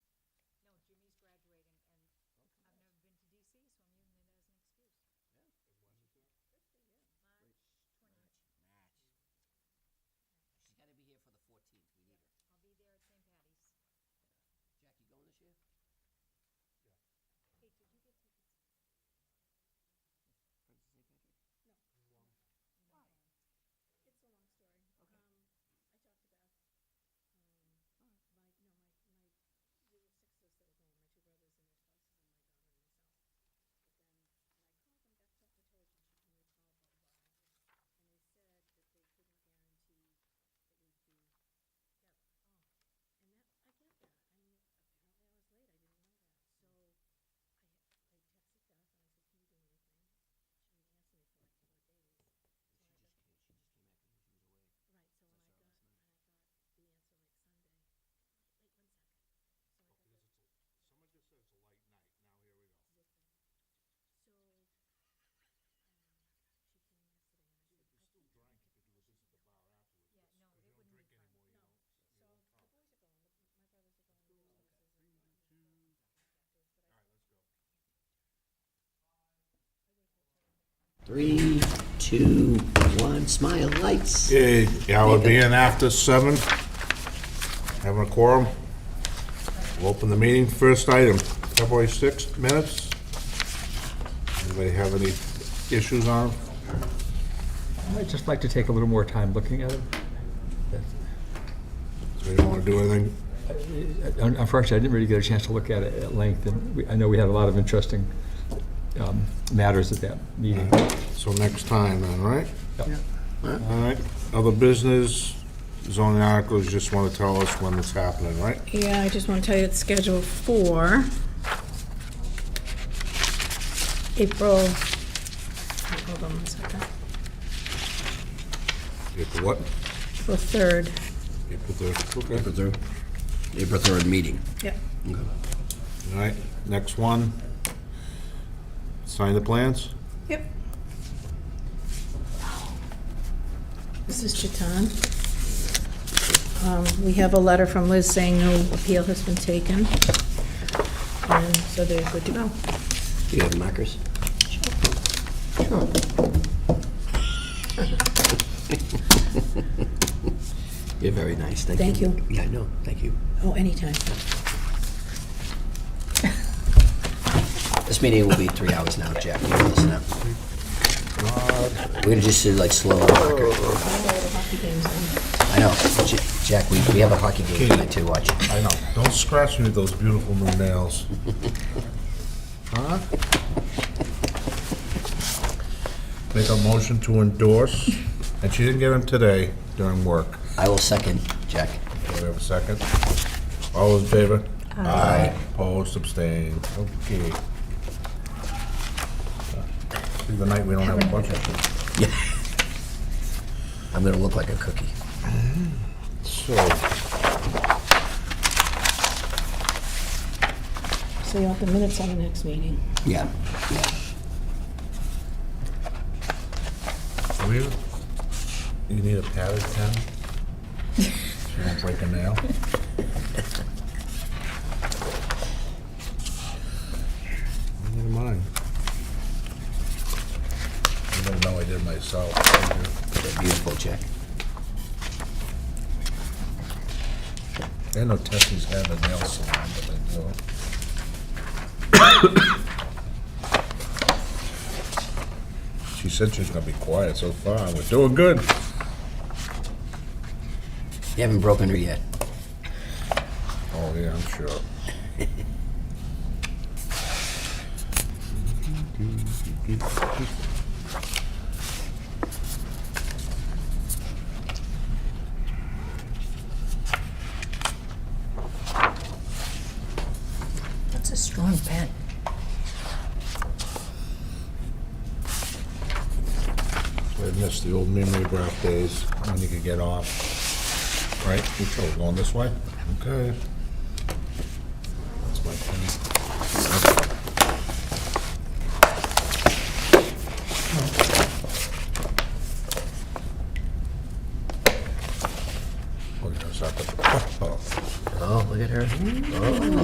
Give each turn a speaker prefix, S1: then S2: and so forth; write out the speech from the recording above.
S1: Three, two, one, smile, lights.
S2: Yeah, yeah, we'll be in after seven. Having a quorum. We'll open the meeting. First item, February 6th minutes. Anybody have any issues on? 'em?
S3: I'd just like to take a little more time looking at it.
S2: They don't want to do anything?
S3: Un- Unfortunately, I didn't really get a chance to look at it at length, and we- I know we had a lot of interesting um, matters at that meeting.
S2: So next time then, right?
S3: Yep.
S2: All right. Other business, zoning articles, you just want to tell us when it's happening, right?
S4: Yeah, I just want to tell you it's scheduled for April, hold on one second,
S2: April what?
S4: April 3rd.
S2: April 3rd. Okay.
S1: April third, April third meeting.
S4: Yep.
S2: All right, next one. Sign the plans?
S4: Yep. This is Chetan. Um, We have a letter from Liz saying no appeal has been taken, and so they're good to go.
S1: Do you have markers? You're very nice, thank you.
S4: Thank you.
S1: Yeah, I know, thank you.
S4: Oh, anytime.
S1: This meeting will be three hours now, Jack, you can listen up.
S2: Uh,
S1: We're gonna just do like slow marker. I know, J- Jack, we, we have a hockey game tonight too, watch.
S2: I know. Don't scratch me with those beautiful new nails. Huh? Make a motion to endorse, and she didn't get them today during work.
S1: I will second, Jack.
S2: Do we have a second? All those in favor? Aye. Opposed, abstained, okay. See, the night we don't have a budget.
S1: I'm gonna look like a cookie.
S2: So,
S4: So you want the minutes on the next meeting?
S1: Yeah, yeah.
S2: do we, you need a padded pen? She won't break a nail? Never mind. I didn't know I did myself.
S1: They're beautiful, Jack.
S2: I know Tessie's had a nail salon, but they do. She said she's gonna be quiet so far. We're doing good.
S1: You haven't broken her yet.
S2: Oh, yeah, I'm sure.
S4: That's a strong pen.
S2: I miss the old mimeograph days when you could get off. Right, we chose going this way? Okay. Oh.